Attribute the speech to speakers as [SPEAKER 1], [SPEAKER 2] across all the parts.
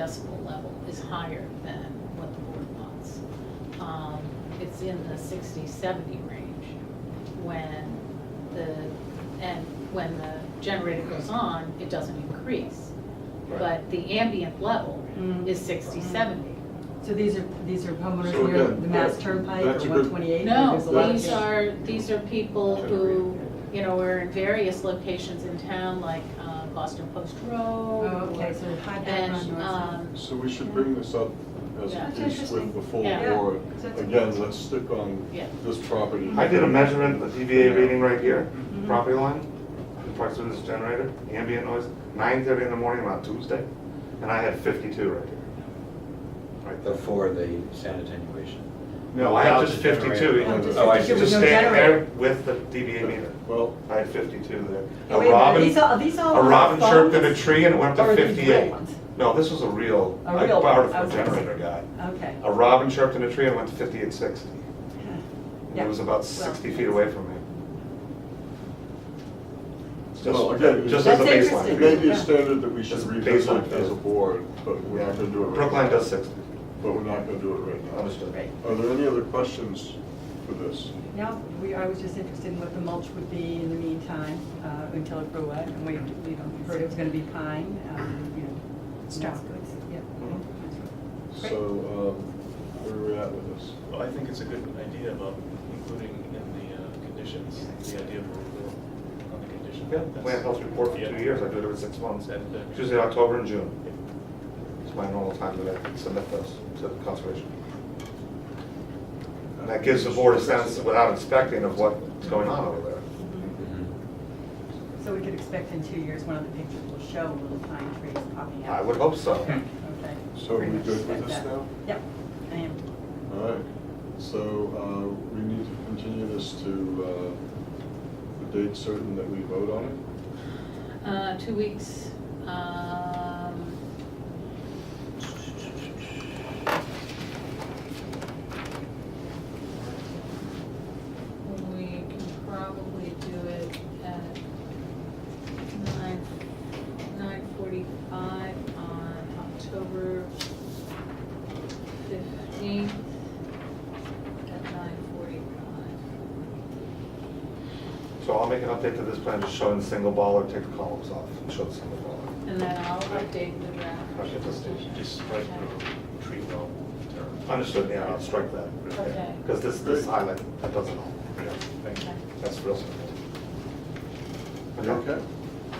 [SPEAKER 1] decibel level is higher than what the board wants. Um, It's in the 60, 70 range when the, and when the generator goes on, it doesn't increase.
[SPEAKER 2] Right.
[SPEAKER 1] But the ambient level
[SPEAKER 3] Mm.
[SPEAKER 1] is 60, 70.
[SPEAKER 3] So these are, these are homeowners
[SPEAKER 2] So
[SPEAKER 3] near
[SPEAKER 2] again,
[SPEAKER 3] the Mass
[SPEAKER 2] that-
[SPEAKER 3] Turnpike
[SPEAKER 2] that's
[SPEAKER 3] or
[SPEAKER 2] a good-
[SPEAKER 3] one twenty-eight?
[SPEAKER 1] No, these are, these are people who,
[SPEAKER 2] Generator.
[SPEAKER 1] you know, are in various locations in town, like uh, Boston Post
[SPEAKER 3] Oh,
[SPEAKER 1] Road.
[SPEAKER 3] okay,
[SPEAKER 1] or-
[SPEAKER 3] so high background
[SPEAKER 1] And,
[SPEAKER 3] noise.
[SPEAKER 1] um,
[SPEAKER 2] So we should bring this up as
[SPEAKER 1] Yeah.
[SPEAKER 2] a
[SPEAKER 1] That's
[SPEAKER 2] piece with the full
[SPEAKER 1] Yeah.
[SPEAKER 2] board.
[SPEAKER 3] Yeah. That's-
[SPEAKER 2] Again, let's stick on
[SPEAKER 1] Yeah.
[SPEAKER 2] this property.
[SPEAKER 4] I did a measurement, a DVA reading right here,
[SPEAKER 3] Mhm.
[SPEAKER 4] property line, in proximity to this generator, ambient noise, nine thirty in the morning on Tuesday, and I had fifty-two right here. Right there.
[SPEAKER 5] before the sound attenuation.
[SPEAKER 4] No, I had
[SPEAKER 5] without
[SPEAKER 4] just
[SPEAKER 5] the generator.
[SPEAKER 4] fifty-two.
[SPEAKER 3] Oh, just
[SPEAKER 4] Oh, I
[SPEAKER 3] 52 with
[SPEAKER 4] Just
[SPEAKER 3] no
[SPEAKER 4] stand there
[SPEAKER 3] generator.
[SPEAKER 4] with the DVA meter.
[SPEAKER 2] Well,
[SPEAKER 4] I had fifty-two there.
[SPEAKER 3] Oh, wait a
[SPEAKER 4] A
[SPEAKER 3] minute, are
[SPEAKER 4] robin,
[SPEAKER 3] these all- are these all
[SPEAKER 4] a
[SPEAKER 3] on
[SPEAKER 4] robin
[SPEAKER 3] phones?
[SPEAKER 4] chirped in a tree and it went
[SPEAKER 3] Or
[SPEAKER 4] to
[SPEAKER 3] are these real
[SPEAKER 4] fifty-eight.
[SPEAKER 3] ones?
[SPEAKER 4] No, this was a real,
[SPEAKER 3] A
[SPEAKER 4] I
[SPEAKER 3] real one,
[SPEAKER 4] borrowed it
[SPEAKER 3] I
[SPEAKER 4] from a
[SPEAKER 3] was gonna say.
[SPEAKER 4] generator guy.
[SPEAKER 3] Okay.
[SPEAKER 4] A robin chirped in a tree and went to fifty-eight sixty. And
[SPEAKER 3] Yeah.
[SPEAKER 4] it was about
[SPEAKER 3] Well,
[SPEAKER 4] sixty feet away from me. Just,
[SPEAKER 2] Well, again,
[SPEAKER 4] just as a
[SPEAKER 3] That's
[SPEAKER 4] baseline.
[SPEAKER 3] interesting.
[SPEAKER 2] it may be a
[SPEAKER 3] Yeah.
[SPEAKER 2] standard that we should
[SPEAKER 4] Just
[SPEAKER 2] revisit
[SPEAKER 4] baseline.
[SPEAKER 2] as a board, but we're not gonna do it right now.
[SPEAKER 4] Brookline does sixty,
[SPEAKER 2] But we're not gonna do it right now.
[SPEAKER 4] understood.
[SPEAKER 3] Right.
[SPEAKER 2] Are there any other questions for this?
[SPEAKER 3] Now, we, I was just interested in what the mulch would be in the meantime, uh, until it grew up, and we, you know, heard it was gonna be pine, um, you know,
[SPEAKER 4] Mm-hmm.
[SPEAKER 3] straw goods, yeah.
[SPEAKER 4] Mhm.
[SPEAKER 3] Great.
[SPEAKER 2] So, um, where are we at with this?
[SPEAKER 6] Well, I think it's a good idea about including in the uh, conditions, the idea of a rule on the condition.
[SPEAKER 4] Yeah,
[SPEAKER 6] That's-
[SPEAKER 4] plant health report for
[SPEAKER 6] Yeah.
[SPEAKER 4] two years, I do it every six months,
[SPEAKER 6] That- that-
[SPEAKER 4] Tuesday, October and June. It's my normal time that I submit those to the conservation. And that gives the board a sense, without inspecting, of what's going on over there.
[SPEAKER 3] Mm-hmm.
[SPEAKER 5] Mm-hmm.
[SPEAKER 3] So we could expect in two years, one of the pictures will show little pine trees popping out.
[SPEAKER 4] I would hope so.
[SPEAKER 3] Okay.
[SPEAKER 2] So are
[SPEAKER 3] Pretty
[SPEAKER 2] we
[SPEAKER 3] much
[SPEAKER 2] good with
[SPEAKER 3] expect
[SPEAKER 2] this
[SPEAKER 3] that.
[SPEAKER 2] now?
[SPEAKER 3] Yep, I am.
[SPEAKER 2] All right, so uh, we need to continue this to uh, the date certain that we vote on it?
[SPEAKER 1] Uh, two weeks, um. We can probably do it at nine, nine forty-five on October fifteenth at nine forty-five.
[SPEAKER 4] So I'll make an update to this plan, just showing the single baller, take the columns off, and show the single baller.
[SPEAKER 1] And then I'll update the draft.
[SPEAKER 4] Okay, let's do it.
[SPEAKER 6] Just strike the tree well term.
[SPEAKER 4] Understood, yeah, I'll strike that.
[SPEAKER 1] Okay.
[SPEAKER 4] Because this, this highlight, that doesn't help.
[SPEAKER 6] Thank you.
[SPEAKER 4] That's real simple.
[SPEAKER 2] You okay?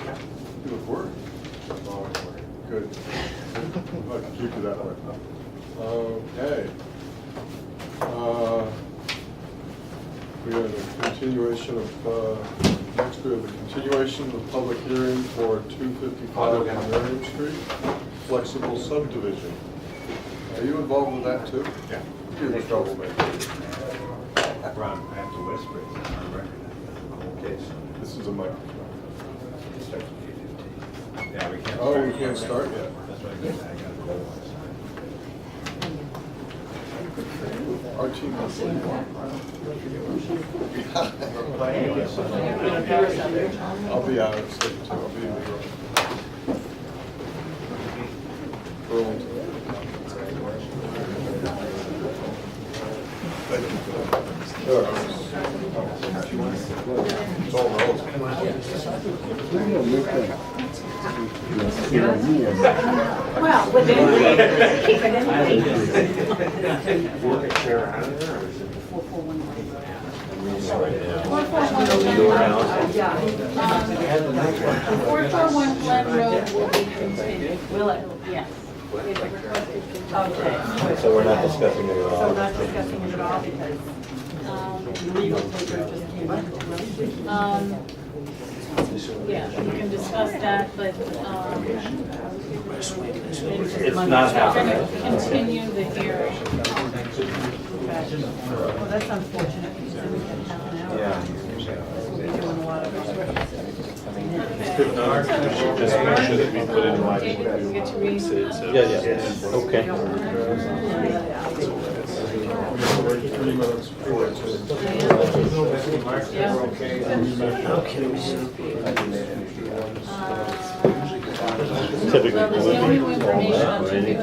[SPEAKER 4] Yeah.
[SPEAKER 2] You look worried. Good. I'll keep you that way. Okay. Uh, We have a continuation of, uh, next we have a continuation of the public hearing for two fifty-five Marion Street, flexible subdivision. Are you involved with that too?
[SPEAKER 7] Yeah.
[SPEAKER 2] You're the troublemaker.
[SPEAKER 7] Ron, I have to whisper it, it's on record, I've got a whole case.
[SPEAKER 2] This is a microphone.
[SPEAKER 7] It starts at eight fifteen. Yeah, we can't.
[SPEAKER 2] Oh,
[SPEAKER 7] start
[SPEAKER 2] we can't start yet.
[SPEAKER 7] That's what I said, I gotta go outside.
[SPEAKER 2] Our team has I'll be out of state too, I'll be in New York. Burlington. Thank you. It's all relative.
[SPEAKER 3] Well, within reason, keep it in reason.
[SPEAKER 4] Work it clear out of there, or is it?
[SPEAKER 3] Four, four, one, one.
[SPEAKER 1] Four four one Glen Road.
[SPEAKER 3] Uh, Yeah,
[SPEAKER 1] Four four one Glen Road will be continued.
[SPEAKER 3] will it?
[SPEAKER 1] Yes. It's requested continued.
[SPEAKER 3] Okay.
[SPEAKER 5] So we're not discussing it at all?
[SPEAKER 3] So we're not discussing it at all because
[SPEAKER 1] Um,
[SPEAKER 3] legal paper just came in.
[SPEAKER 1] um, Yeah, we can discuss that, but um,
[SPEAKER 5] It's not
[SPEAKER 1] we're going
[SPEAKER 5] happening.
[SPEAKER 1] to continue the hearing.
[SPEAKER 3] Well, that's unfortunate because then we could have an hour.
[SPEAKER 5] Yeah.
[SPEAKER 3] We'll be doing a lot of.
[SPEAKER 6] Just make sure that we put in
[SPEAKER 1] David,
[SPEAKER 6] writing.
[SPEAKER 1] you get to read.
[SPEAKER 5] Yeah, yeah, okay.
[SPEAKER 2] Three minutes for it
[SPEAKER 1] Yeah.
[SPEAKER 2] Okay.
[SPEAKER 1] Uh,
[SPEAKER 5] Typically,
[SPEAKER 1] Well, there's no
[SPEAKER 5] would be
[SPEAKER 1] new information
[SPEAKER 5] all that,
[SPEAKER 1] until
[SPEAKER 5] right?
[SPEAKER 1] we